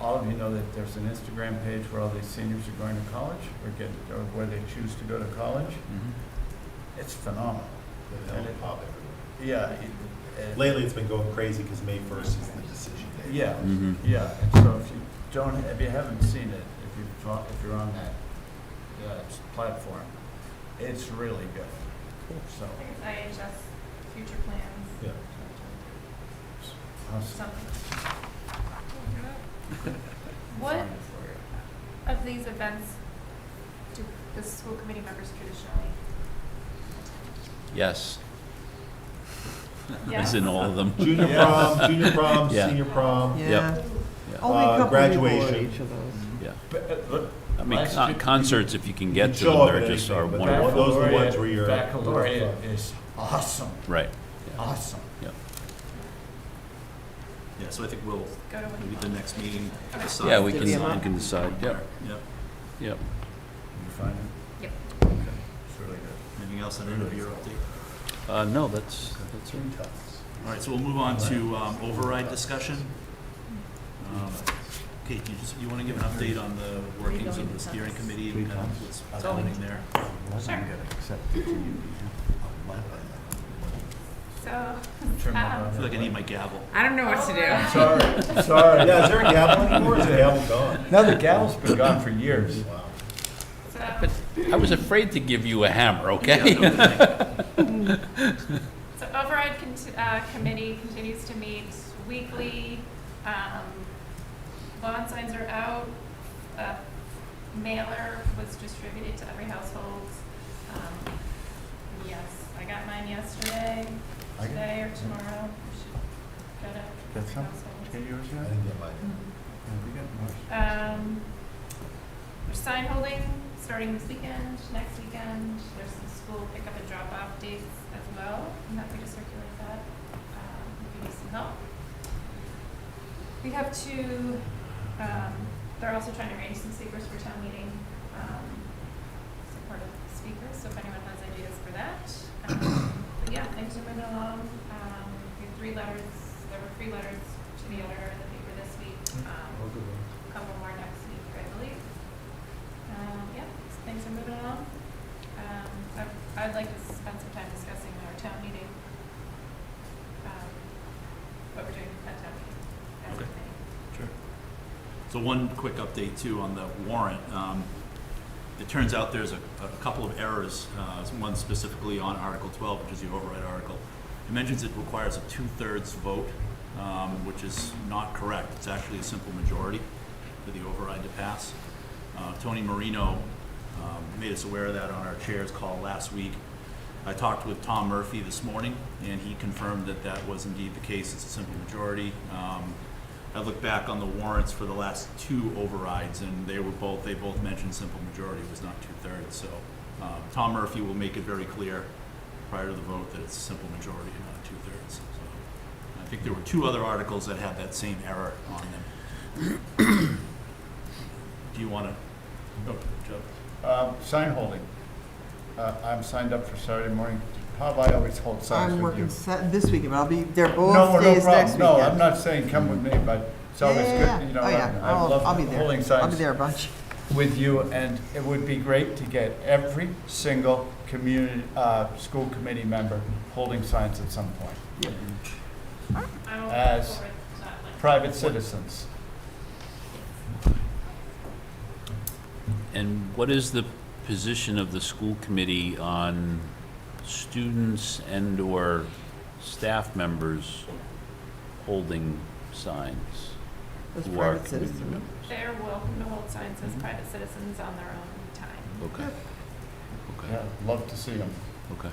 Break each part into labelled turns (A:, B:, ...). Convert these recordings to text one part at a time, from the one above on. A: all of you know that there's an Instagram page where all these seniors are going to college, or get, or where they choose to go to college. It's phenomenal.
B: The hell pop everywhere.
A: Yeah. it- it-
B: Lately, it's been going crazy because May first is the decision day.
A: Yeah,
C: Mhm.
A: yeah. And so if you don't, if you haven't seen it, if you have talk, if you're on that, uh, platform, it's really good. So,
D: IHS future plans.
B: Yeah.
A: awesome.
D: Something. What
A: Fine for you.
D: of these events do the school committee members traditionally?
C: Yes,
D: Yes.
C: as in all of them.
B: Junior prom, junior prom,
C: Yeah.
B: senior prom.
E: Yeah.
C: Yeah.
E: Only a
B: Uh,
E: couple people at
B: graduation.
E: each of those.
C: Yeah,
A: But, uh, look,
C: I mean,
A: Last
C: con-
A: year-
C: concerts, if you can
B: You
C: get to
B: show
C: them,
B: up
C: they're
B: at
C: just
B: anything,
C: are
B: but
C: wonderful.
B: those are the ones
A: baccalaureate-
B: where you're-
A: Baccalaureate is awesome,
C: Right.
A: awesome.
F: Yeah, so I think we'll,
D: Go to
F: maybe the
D: one.
F: next meeting, decide.
C: Yeah, we
E: Did
C: can,
E: the
C: we
E: amount-
C: can decide, yep,
F: Yep.
C: yep.
A: You find it?
D: Yep.
A: Okay, it's really good.
F: Anything else on end of your update?
C: Uh, no, that's, that's it.
F: All right, so we'll move on to um, override discussion. Um, Kate, you just, you want to give an update on the workings of the steering committee and kind of what's happening there?
D: Sure. So,
A: Turn that
D: Um,
A: on.
F: I feel like I need my gavel.
G: I don't know what to do.
A: Sorry, sorry.
B: Yeah, is there a gavel anymore? Is the gavel gone?
A: No, the gavel's been gone for years.
B: Wow.
D: so,
C: I was afraid to give you a hammer, okay?
D: so override conti- uh, committee continues to meet weekly. Um, lawn signs are out. A mailer was distributed to every household. Um, yes, I got mine yesterday,
A: I got-
D: today or tomorrow. Should Go to
A: Got some?
D: households.
A: Get yours
B: I
A: yet?
B: didn't get mine.
A: Yeah, we got yours.
D: Um, there's sign holding starting this weekend, next weekend. There's some school pickup and drop off dates as well. I'm happy to circulate that um, if you need some help. We have two, um, they're also trying to arrange some speakers for town meeting, um, supportive speakers, so if anyone has ideas for that. Um, But yeah, things are moving along. Um, we have three letters, there were three letters to the editor in the paper this week. Um,
B: Oh, good one.
D: couple more next week, I believe. Um, yeah, so things are moving along. Um, I- I'd like to spend some time discussing our town meeting. um, What we're doing at town meeting. as a
F: Okay.
D: committee.
F: Sure. So one quick update too on the warrant. Um, It turns out there's a, a couple of errors, uh, one specifically on Article 12, which is the override article. It mentions it requires a two-thirds vote, um, which is not correct. It's actually a simple majority for the override to pass. Uh, Tony Marino um, made us aware of that on our chair's call last week. I talked with Tom Murphy this morning, and he confirmed that that was indeed the case. It's a simple majority. Um, I looked back on the warrants for the last two overrides, and they were both, they both mentioned simple majority was not two-thirds. So uh, Tom Murphy will make it very clear prior to the vote that it's a simple majority and not two-thirds. So I think there were two other articles that had that same error on them. Do you want to? No, Joe.
A: Um, sign holding. Uh, I'm signed up for Saturday morning. Bob, I always hold signs
E: I'm
A: with you.
E: working Sat- this weekend, but I'll be, they're
A: No,
E: both
A: no
E: days next
A: problem.
E: weekend.
A: No, I'm not saying come with me, but it's
E: Yeah,
A: always
E: yeah,
A: good,
E: yeah.
A: you know,
E: Oh, yeah.
A: I I
E: I'll-
A: love
E: I'll be there.
A: holding
E: I'll be
A: signs
E: there a bunch.
A: with you, and it would be great to get every single community, uh, school committee member holding signs at some point.
D: I will
A: As
D: forward that link.
A: Private citizens.
C: And what is the position of the school committee on students and/or staff members holding signs?
E: As
C: who are
E: private
C: committee
E: citizens.
C: members?
D: They're welcome to hold signs
C: Mhm.
D: as private citizens on their own time
C: Okay, okay,
A: Yeah, love to see them.
C: okay.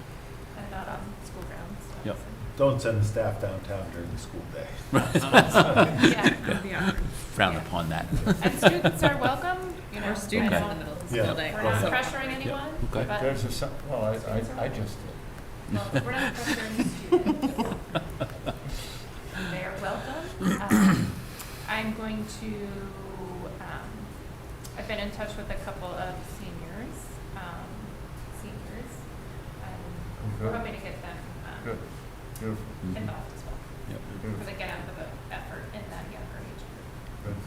D: and not on school grounds.
C: Yep.
B: Don't send the staff downtown during the school day.
D: Yeah,
G: Yeah.
C: Frown upon that.
D: and students are welcome, you know.
G: We're
D: I
G: students in the
D: don't-
G: middle of the
B: Yeah.
G: school day.
D: We're not
G: so-
D: pressuring anyone,
C: okay.
D: but
A: There's a, si- well, I, I, I just did.
D: Well, we're not pressuring students. They are welcome. Um, I'm going to, um, I've been in touch with a couple of seniors, um, seniors. Um, We're
A: Good,
D: hoping to get them um,
A: Good. Mm-hmm. beautiful,
C: Mhm.
D: involved as well,
C: Yep.
A: beautiful.
D: because again, the effort in that younger age group.
A: Good.